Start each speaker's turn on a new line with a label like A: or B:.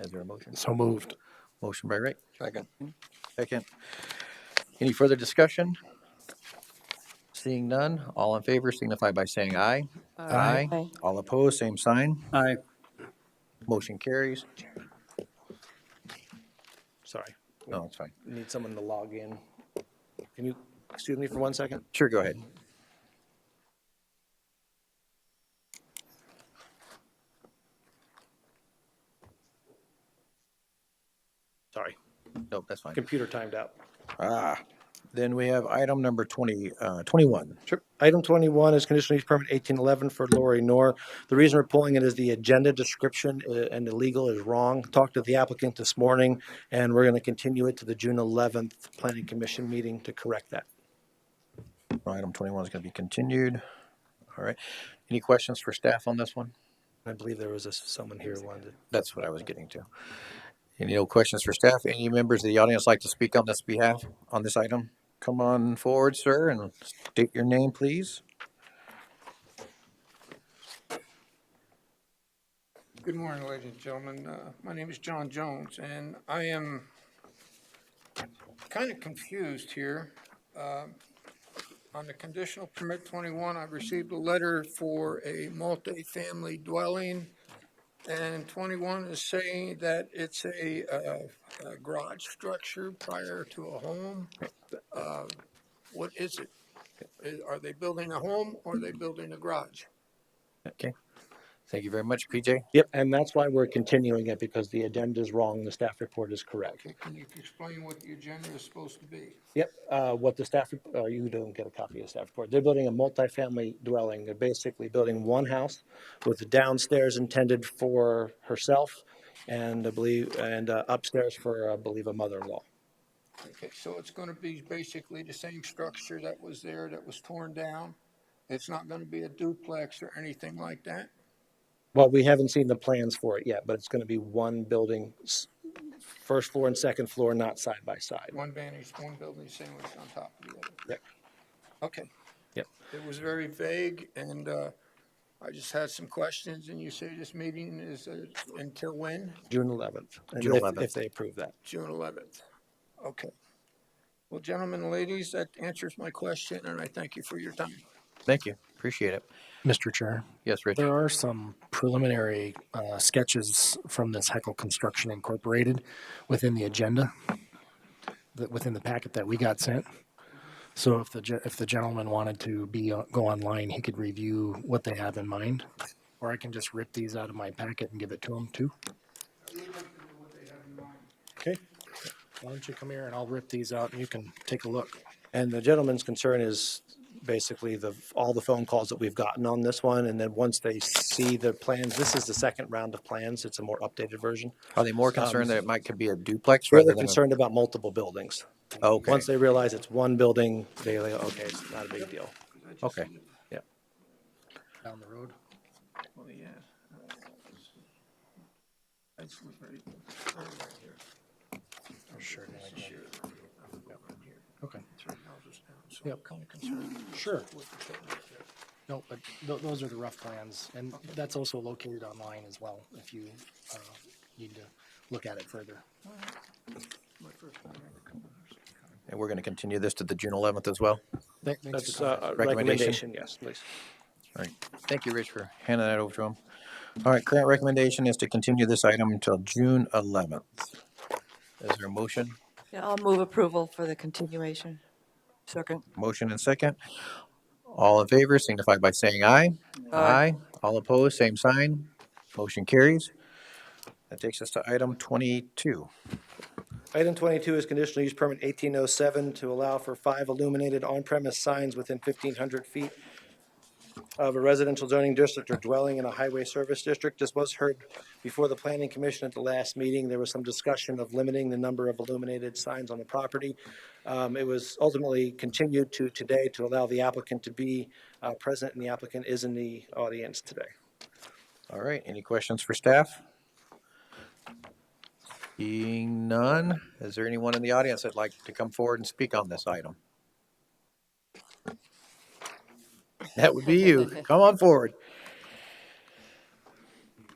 A: Is there a motion?
B: So moved.
A: Motion by Wright,
C: Second.
A: second. Any further discussion? Seeing none, all in favor signify by saying aye.
B: Aye.
D: Aye.
A: All opposed, same sign.
B: Aye.
A: Motion carries.
E: Sorry,
A: No, it's fine.
E: need someone to log in. Can you, excuse me for one second?
A: Sure, go ahead.
E: Sorry,
A: Nope, that's fine.
E: computer timed out.
A: Ah, then we have item number twenty, uh, twenty-one.
E: Sure. Item twenty-one is conditional use permit eighteen eleven for Lori Nor. The reason we're pulling it is the agenda description uh, and the legal is wrong. Talked to the applicant this morning, and we're gonna continue it to the June eleventh planning commission meeting to correct that.
A: Item twenty-one is gonna be continued. All right. Any questions for staff on this one?
E: I believe there was a- someone here who wanted to.
A: That's what I was getting to. Any no questions for staff? Any members of the audience like to speak on this behalf, on this item? Come on forward, sir, and state your name, please.
C: Good morning, ladies and gentlemen. Uh, My name is John Jones, and I am kind of confused here. Um, On the conditional permit 21, I received a letter for a multifamily dwelling, and 21 is saying that it's a uh, a garage structure prior to a home. Uh, What is it? Is- Are they building a home or are they building a garage?
A: Okay. Thank you very much, PJ.
E: Yep, and that's why we're continuing it, because the agenda is wrong, the staff report is correct.
C: Okay, Can you explain what the agenda is supposed to be?
E: Yep, uh, what the staff, rep- uh, you don't get a copy of the staff report. They're building a multifamily dwelling. They're basically building one house with the downstairs intended for herself and I believe, and uh, upstairs for, I believe, a mother-in-law.
C: Okay, so it's gonna be basically the same structure that was there that was torn down? It's not gonna be a duplex or anything like that?
E: Well, we haven't seen the plans for it yet, but it's gonna be one building, s- first floor and second floor, not side by side.
C: One vantage, one building sandwiched on top of the other?
E: Yep.
C: Okay.
E: Yep.
C: It was very vague and, uh, I just had some questions and you say this meeting is uh, until when?
E: June eleventh.
A: June 11th.
E: If they approve that.
C: June eleventh. Okay. Well, gentlemen, ladies, that answers my question and I thank you for your time.
A: Thank you. Appreciate it.
B: Mr. Chair,
A: Yes, Rich.
B: there are some preliminary uh, sketches from this Heckle Construction Incorporated within the agenda, that within the packet that we got sent. So if the, ge- if the gentleman wanted to be, uh, go online, he could review what they have in mind. Or I can just rip these out of my packet and give it to him too. Okay. Why don't you come here and I'll rip these out and you can take a look.
E: And the gentleman's concern is basically the, all the phone calls that we've gotten on this one, and then once they see the plans, this is the second round of plans, it's a more updated version.
A: Are they more concerned that it might could be a duplex rather
E: Really
A: than? a-
E: concerned about multiple buildings.
A: Okay,
E: Once they realize it's one building, they, like, okay, it's not a big deal.
A: okay.
B: Down the road.
C: Oh, yeah. That's right.
B: Sure. Okay.
C: So
B: Yep.
C: kind of concerned
B: Sure.
C: with the building there.
B: No, but th- those are the rough plans, and that's also located online as well, if you uh, need to look at it further.
C: My first time ever coming here.
A: And we're going to continue this to the June eleventh as well.
B: Th- thanks for
E: That's
B: coming.
E: uh, a
A: Recommendation?
E: recommendation, yes, please.
A: All right. Thank you, Rich, for handing that over to him. All right, current recommendation is to continue this item until June eleventh. Is there a motion?
D: Yeah, I'll move approval for the continuation. Second.
A: Motion and second. All in favor signify by saying aye. Aye. All opposed, same sign. Motion carries. That takes us to item twenty-two.
E: Item twenty-two is conditional use permit eighteen oh seven to allow for five illuminated on-premise signs within fifteen hundred feet of a residential zoning district or dwelling in a highway service district. This was heard before the planning commission at the last meeting. There was some discussion of limiting the number of illuminated signs on the property. Um, it was ultimately continued to today to allow the applicant to be, uh, present, and the applicant is in the audience today.
A: All right, any questions for staff? Seeing none, is there anyone in the audience that'd like to come forward and speak on this item? That would be you. Come on forward.